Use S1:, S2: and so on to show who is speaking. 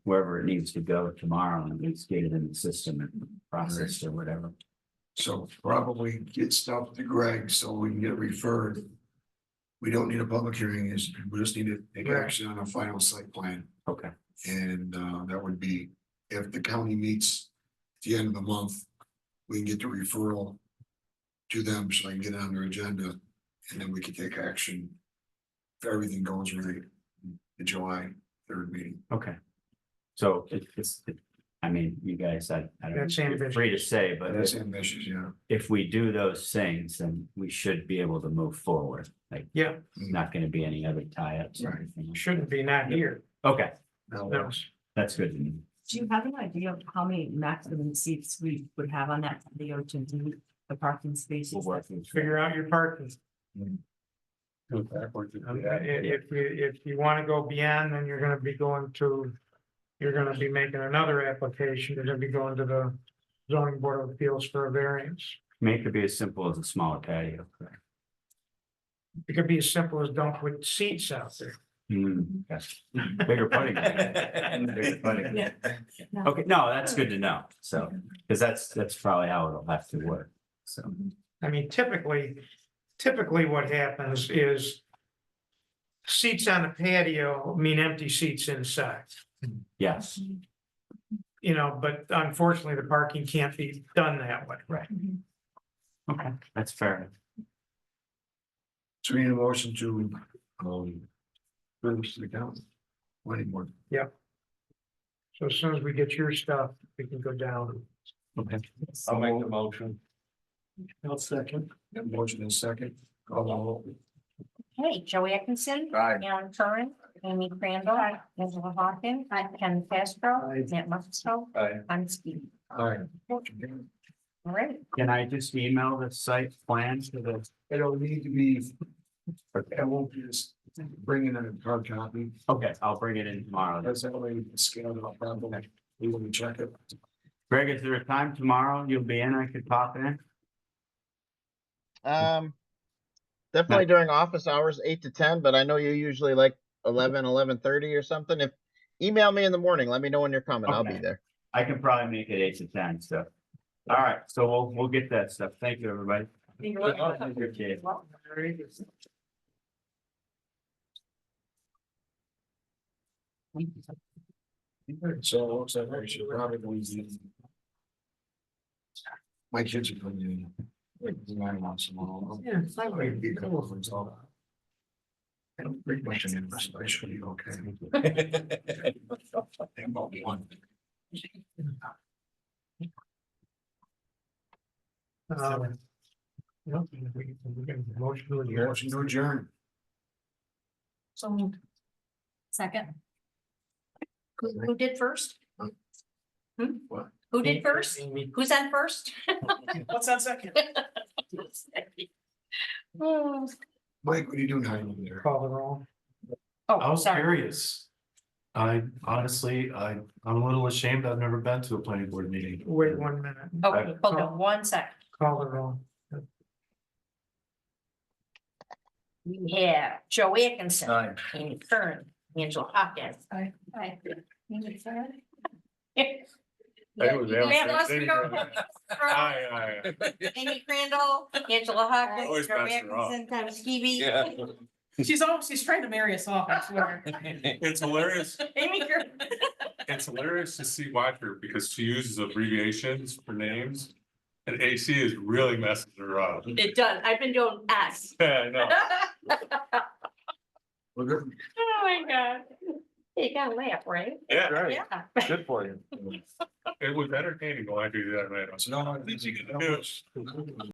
S1: wherever it needs to go tomorrow and it's get it in the system and processed or whatever.
S2: So probably get stuff to Greg so we can get referred. We don't need a public hearing, is we just need to take action on a final site plan.
S1: Okay.
S2: And uh that would be if the county meets at the end of the month, we can get the referral. To them so I can get it on their agenda and then we can take action. If everything goes right, the July third meeting.
S1: Okay. So it- it's, it- I mean, you guys, I, I don't,
S3: That's
S1: you're
S3: ambitious.
S1: free to say, but
S2: That's
S1: if-
S2: ambitious, yeah.
S1: if we do those things, then we should be able to move forward. Like,
S3: Yeah,
S1: there's not gonna be any other tie-ups or
S2: Right.
S1: anything.
S3: shouldn't be not here.
S1: Okay,
S2: Now,
S3: No.
S1: that's good. to know.
S4: Do you have an idea of how many maximum seats we would have on that patio to do the parking
S1: We'll
S4: spaces?
S1: work through it.
S3: Figure out your parking.
S2: Mm. go backwards if
S3: Um,
S2: we
S3: i-
S2: had-
S3: If you, if you want to go beyond, then you're going to be going to, you're going to be making another application. You're going to be going to the zoning board of appeals for a variance.
S1: I mean, it could be as simple as a smaller patio. correct?
S3: It could be as simple as don't put seats out there.
S1: Hmm, yes. Bigger putting. green. Bigger putting green. Okay, no, that's good to know. So, because that's, that's probably how it'll have to work. So,
S3: I mean, typically, typically what happens is seats on the patio mean empty seats inside,
S1: yes,
S3: you know, but unfortunately, the parking can't be done that way.
S1: okay, that's fair.
S2: So we need a motion to, um, service to the county. Planning board.
S3: So as soon as we get your stuff, we can go down.
S2: Okay.
S5: I'll make the motion.
S3: I'll second.
S2: Got a motion in second. Call the roll.
S6: Hey, Joey Atkinson.
S2: Aye.
S6: Alan Curran, Amy Crandall. Angela Hawkins. Ken Castro. Matt Musto.
S5: Aye.
S6: I'm Steve.
S2: Aye.
S6: All right.
S1: Can I just email the site plan to the,
S2: It'll need to be, I won't be just bringing in a hard copy.
S1: okay, I'll bring it in tomorrow.
S2: That's that way we can scan it up properly. We will check it.
S1: Greg, is there a time tomorrow you'll be in? I could pop in?
S7: Um, definitely during office hours, eight to ten, but I know you usually like eleven, eleven thirty or something. If email me in the morning, let me know when you're coming. I'll be
S1: Okay.
S7: there.
S1: I can probably make it eight to ten, so. All right, so we'll, we'll get that stuff. Thank you, everybody. Okay.
S2: So it looks like we should probably go easy. My kids are coming in. I want some of them.
S3: Yeah, it's
S2: I
S3: like we-
S2: might be a couple of them, so. I don't bring much in, but I should be okay. About one.
S3: Um, you know, we- we- we can Motion to adjourn.
S2: Motion to adjourn.
S6: So moved. Second. Who, who did first? Hmm?
S2: What?
S6: Who did first?
S3: Amy,
S6: Who's on first?
S3: What's on second?
S6: Oh,
S2: Mike, what are you doing hiding over there?
S3: Call the roll.
S5: I
S6: oh,
S5: was
S6: sorry.
S5: curious. I honestly, I, I'm a little ashamed. I've never been to a planning board meeting.
S3: Wait one minute.
S6: Okay, hold on one sec.
S3: Call the roll.
S6: We have Joe Atkinson.
S2: Aye.
S6: Amy Curran, Angela Hopkins.
S4: Aye.
S6: Aye.
S5: That was
S6: Yeah,
S5: Alice,
S6: let's
S5: thank
S6: go.
S5: Aye, aye,
S6: Amy Crandall, Angela Hopkins,
S5: Always
S6: Joe
S5: pass her off.
S6: Atkinson, Thomas Skibby.
S4: She's almost, she's trying to marry us off, I swear.
S8: It's hilarious,
S6: Amy Curran.
S8: it's hilarious to see Watford because she uses abbreviations for names. And AC is really messing her up.
S6: It does, I've been doing S.
S8: Yeah, I know.
S5: Oh.
S2: We're good.
S6: Oh, my God. You gotta laugh, right?
S8: Yeah,
S6: Yeah.
S5: Good for you.
S8: it was entertaining when I do that, man. I was
S2: So now I
S8: Did you get the news?
S2: think-